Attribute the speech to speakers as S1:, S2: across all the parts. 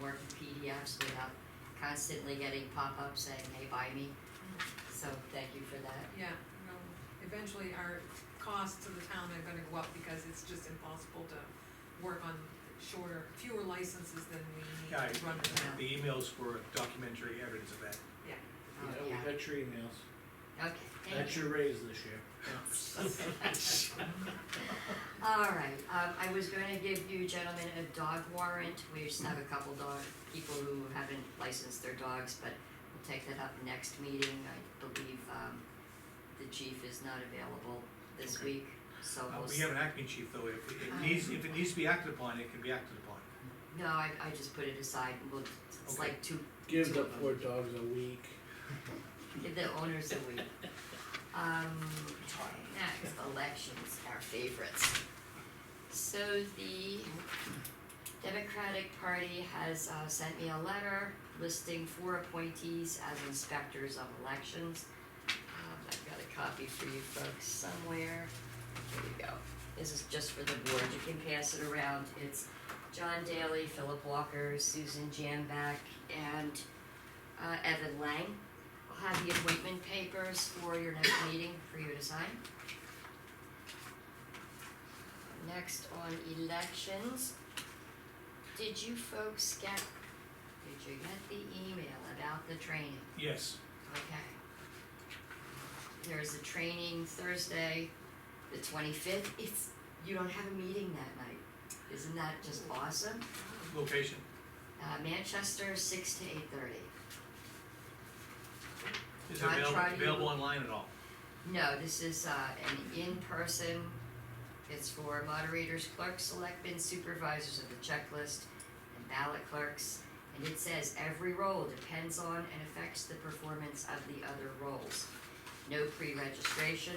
S1: Word PDFs without constantly getting pop-ups saying, hey, buy me. So thank you for that.
S2: Yeah, no, eventually our costs to the town are gonna go up because it's just impossible to work on shorter, fewer licenses than we
S3: Yeah, I-
S2: need to run the town.
S3: The emails were documentary evidence of that.
S1: Oh,
S4: Yeah,
S1: yeah,
S4: we got your emails.
S1: okay,
S4: That's
S1: thank you.
S4: your raise this year.
S1: All right, um, I was gonna give you gentlemen a dog warrant. We just have a couple dog, people who haven't licensed their dogs, but we'll take that up next meeting. I believe, um, the chief is not available this
S3: Okay.
S1: week, so
S3: Uh,
S1: we'll.
S3: We
S1: s-
S3: have an acting chief, though, if
S1: Ah.
S3: it needs, if it needs to be acted upon, it can be acted upon.
S1: No, I, I just put it aside, and we'll, it's
S3: Okay.
S1: like two,
S4: Gives up four dogs a week.
S1: give the owners a week. Um, next, elections, our favorites. So the Democratic Party has, uh, sent me a letter listing four appointees as inspectors of elections. Um, I've got a copy for you folks somewhere. Here we go. This is just for the board, you can pass it around. It's John Daly, Philip Walker, Susan Jamback, and, uh, Evan Lang. I'll have the appointment papers for your next meeting for you to sign. Next on elections, did you folks get, did you get the email about the training?
S3: Yes,
S1: Okay. There's a training Thursday, the twenty-fifth, it's, you don't have a meeting that night, isn't that just awesome?
S3: location.
S1: Uh, Manchester, six to eight thirty.
S3: Is it
S1: Can I
S3: available,
S1: try to-
S3: available online at all?
S1: No, this is uh, an in-person, it's for moderators, clerks, selectmen, supervisors of the checklist, and ballot clerks. And it says every role depends on and affects the performance of the other roles. No pre-registration,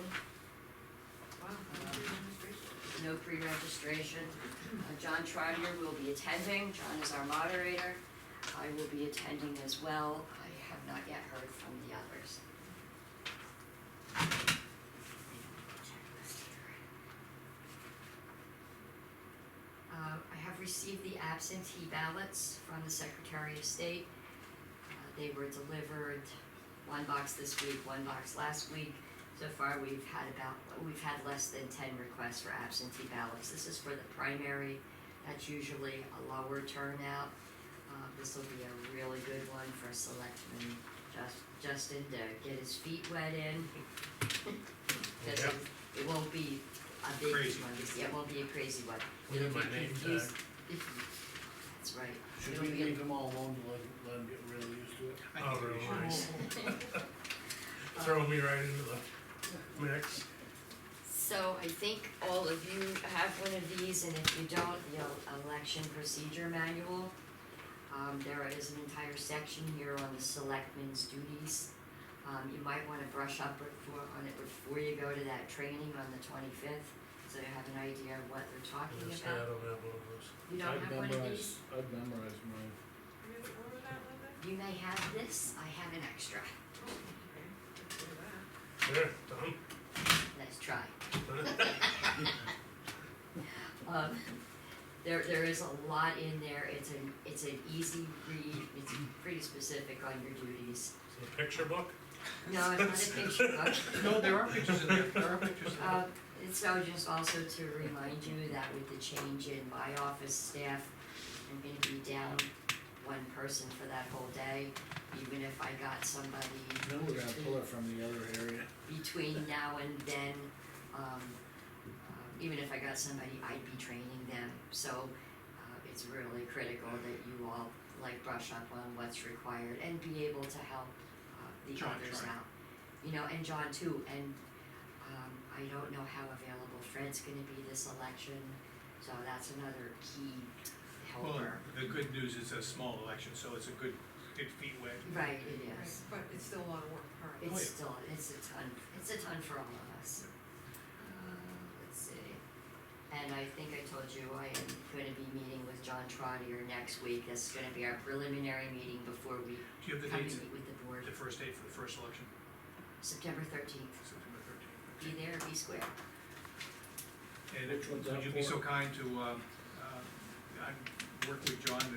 S2: Wow, that's pretty demonstration.
S1: no pre-registration. Uh, John Trotter will be attending, John is our moderator. I will be attending as well. I have not yet heard from the others. Uh, I have received the absentee ballots from the Secretary of State. Uh, They were delivered, one box this week, one box last week. So far, we've had about, we've had less than ten requests for absentee ballots. This is for the primary, that's usually a lower turnout. Uh, this will be a really good one for Selectman Jus- Justin to get his feet wet in. 'Cause it- it won't be a big
S3: Crazy.
S1: one, It's- it won't be a crazy one.
S4: We did
S1: It'll
S4: my
S1: be
S4: name
S1: confused- That's right.
S4: Should
S1: It'll
S4: we
S1: be a-
S4: leave them all alone to let, let them get really used to it?
S3: I think
S5: Oh,
S3: we
S5: really?
S3: should.
S5: Nice. Throwing me right into the mix.
S1: So I think all of you have one of these, and if you don't, the election procedure manual. Um, there is an entire section here on the selectmen's duties. Um, you might wanna brush up before, on it before you go to that training on the twenty-fifth, so you have an idea of what they're talking
S5: Let's say I
S1: about.
S5: don't have one of those.
S1: You don't have one of these?
S4: I've memorized, I've memorized mine.
S2: Where did- where was that, Linda?
S1: You may have this, I have an extra.
S2: Oh, okay, let's go to that.
S5: There, done.
S1: Let's try.
S5: Done.
S1: Um, there, there is a lot in there, it's an, it's an easy read, it's pretty specific on your duties.
S5: It's a picture book.
S1: No, it's not a picture book.
S3: No, there are pictures in there, there are pictures in there.
S1: Uh, and so just also to remind you that with the change in my office staff, I'm gonna be down one person for that whole day. Even if I got somebody
S4: Then we're gonna pull it from the other area.
S1: between now and then, um, uh, even if I got somebody, I'd be training them. So, uh, it's really critical that you all like brush up on what's required and be able to help, uh, the
S3: John,
S1: others
S3: John.
S1: out. You know, and John too, and, um, I don't know how available Fred's gonna be this election, so that's another key
S3: Well,
S1: helper.
S3: the good news is a small election, so it's a good, good feet wet.
S1: Right, it
S2: Right,
S1: is.
S2: But it's still a lot of work, alright.
S3: Oh, yeah.
S1: It's still, it's a ton, it's a ton for all of us. Uh, Let's see, and I think I told you I am gonna be meeting with John Trotter next week, this is gonna be our preliminary meeting before we
S3: Do you have the
S1: come and
S3: dates,
S1: meet with the board,
S3: the first date for the first election,
S1: September thirteenth,
S3: September
S1: be there,
S3: thirteenth?
S1: be square.
S3: And
S4: Which one's
S3: would
S4: that
S3: you be so
S4: for?
S3: kind to, uh, uh, I'd work with John to